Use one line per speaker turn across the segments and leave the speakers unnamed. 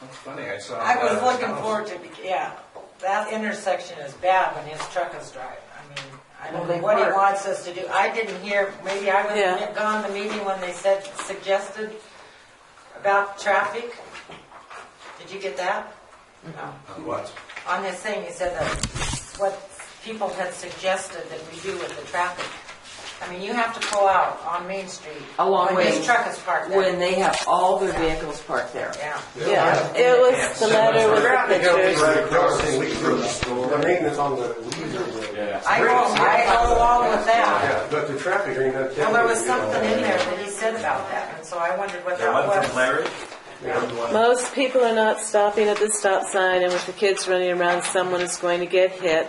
That's funny, I saw. uh,
I was
that.
looking forward to, yeah, that intersection is bad when his truck is driving. I mean, I don't know what he wants us to do. I didn't hear, maybe I
Yeah.
wasn't gone to the meeting when they said, suggested about traffic. Did you get that? No.
On What?
On this thing, you said that what people had suggested that we do with the traffic. I mean, you have to pull out on Main Street.
Along
When his
with-
truck is parked there.
when they have all their vehicles parked there.
Yeah.
Yeah.
It was the letter with the pictures.
Right across the leaders, the maintenance on the leaders. Yeah.
I go, I go along with that.
Yeah, but the traffic ain't that.
Well, there was something in there that he said about that, and so I wondered what that was.
Most people are not stopping at the stop sign, and with the kids running around, someone is going to get hit.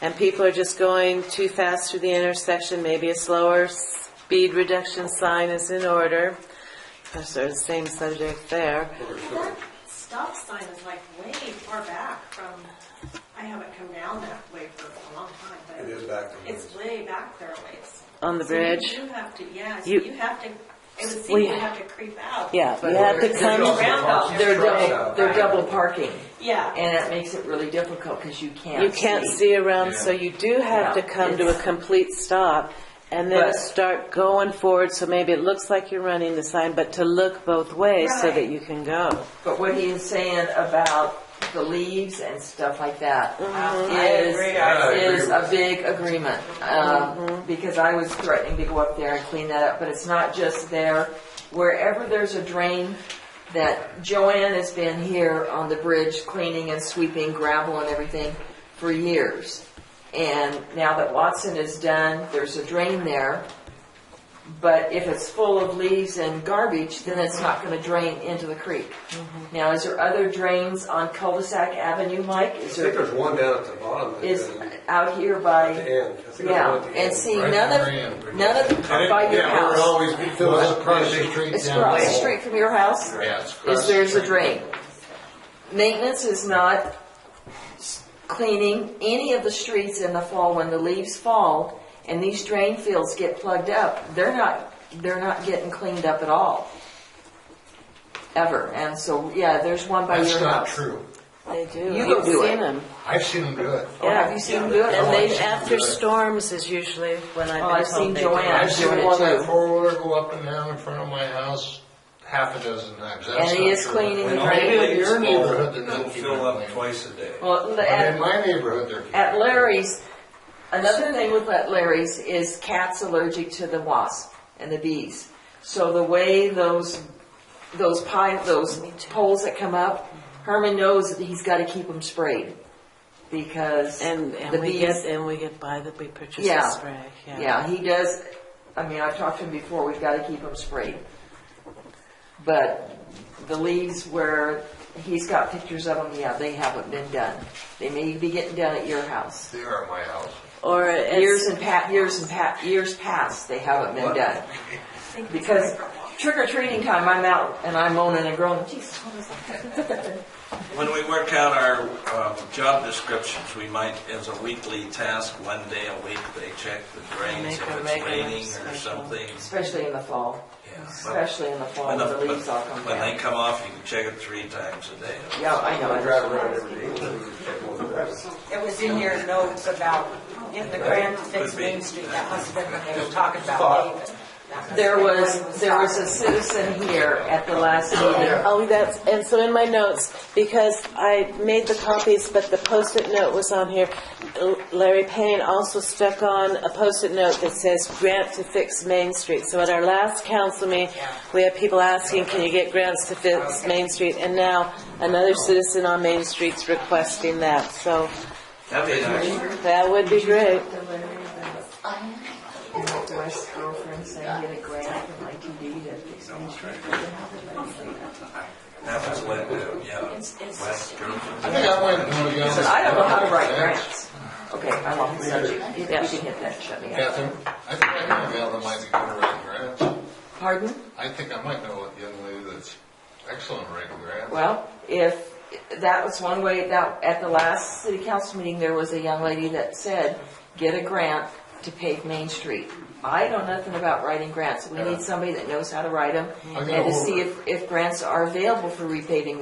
And people are just going too fast through the intersection, maybe a slower speed reduction sign is in order. That's sort of the same subject there.
That stop sign is like way far back from, I haven't come down that way for a long time, but.
It is back there.
It's way back there a ways.
On the
So you-
bridge?
You have to, yeah, so
You-
you have to, it would
We-
seem you have to creep out.
Yeah, you have to come,
Roundabout,
They're double, they're double parking,
yeah.
and that makes it really difficult, because you can't
you can't see around, so you do have to
Yeah.
come to a complete stop and then
But-
start going forward, so maybe it looks like you're running the sign, but to look both ways so that
Right.
you can go.
But what he is saying about the leaves and stuff like that
Mm-hmm. I agree. I
is, is a big agreement. Um, Because I was threatening to go up there and clean that up, but it's not just there. Wherever there's a drain, that Joanne has been here on the bridge cleaning and sweeping gravel and everything for years. And now that Watson is done, there's a drain there. But if it's full of leaves and garbage, then it's not gonna drain into the creek. Now, is there other drains on cul-de-sac avenue, Mike?
I think
Is there,
there's one down at the bottom. that-
is
At
out here by,
the end. I think there's
yeah,
one at the
and
end.
see, none of, none of, by your
Yeah, we're
house.
always, it fills up across the street
It's
down
across the
the hall.
street from your house,
Yeah, it's across
is
the
there's a
street.
drain. Maintenance is not s- cleaning any of the streets in the fall when the leaves fall and these drain fields get plugged up. They're not, they're not getting cleaned up at all. Ever. And so, yeah, there's one by
That's
your
not
house.
true.
They do.
You
I've
go do
seen
it.
'em.
I've seen them do it.
Oh, have you seen them do it?
And they,
I've seen
after
them do it.
storms is usually when
Oh,
I've
I've
been told
seen
they do.
Joanne.
I've seen
doing it
one
too.
that four-wheeler go up and down in front of my house half a dozen times. That's
And he
not
is
true.
cleaning the
Well,
drain.
Maybe in your neighborhood, they're
It'll
not keeping
fill
it
up
clean.
twice a day.
Well, the-
But in
at,
my neighborhood, they're. keeping
at
it
Larry's, another thing with at Larry's is cats allergic to the wasp and the bees. So the way those, those pine, those poles that come up, Herman knows that he's gotta keep them sprayed. Because
And,
the
and we get,
bees,
and we get by that we purchase the
Yeah.
spray, yeah.
yeah, he does, I mean, I've talked to him before, we've gotta keep them sprayed. But the leaves where he's got pictures of them, yeah, they haven't been done. They may be getting done at your house.
They are at my house.
Or it's-
Years and pa, years and pa, years past, they haven't been done.
I think it's
Because
right for a walk.
trick or treating time, I'm out and I'm moaning and groaning, geez, what was that?"
When we work out our um, job descriptions, we might, as a weekly task, one day a week, they check the drains,
Make a
if it's
regular
raining or
schedule.
something.
Especially in the fall,
Yeah, but-
especially in the fall,
When
when
the-
the leaves all come
when- when they
down.
come off, you can check it three times a day.
Yeah, I know.
I
it's-
drive around every day. That's
It was in your notes about getting the grant to fix
Could be.
Main Street, that must have been when they were talking about David. That must have
There
been
was,
when he
there was a
talking.
citizen here at the last meeting.
Oh, that's, and so in my notes, because I made the copies, but the post-it note was on here, Larry Payne also stuck on a post-it note that says grant to fix Main Street. So at our last council meeting, we had people asking, can you get grants to fix Main Street? And now another citizen on Main Street's requesting that, so
That'd be nice.
that would be great.
Your ex-girlfriend saying get a grant from ITD to fix my street.
That was when, uh, yeah, last girlfriend.
I think I went, no, you
He said, I don't know how to write grants. Okay, I'm off the subject. You you can hit that, shut me up.
Catherine, I think I know a gal that might be good at writing grants.
Pardon?
I think I might know a young lady that's excellent at writing grants.
Well, if, that was one way, that, at the last city council meeting, there was a young lady that said, get a grant to pave Main Street. I know nothing about writing grants, we need somebody that knows how to write them,
I
and
got
to
over
see
it.
if, if grants are available for repaving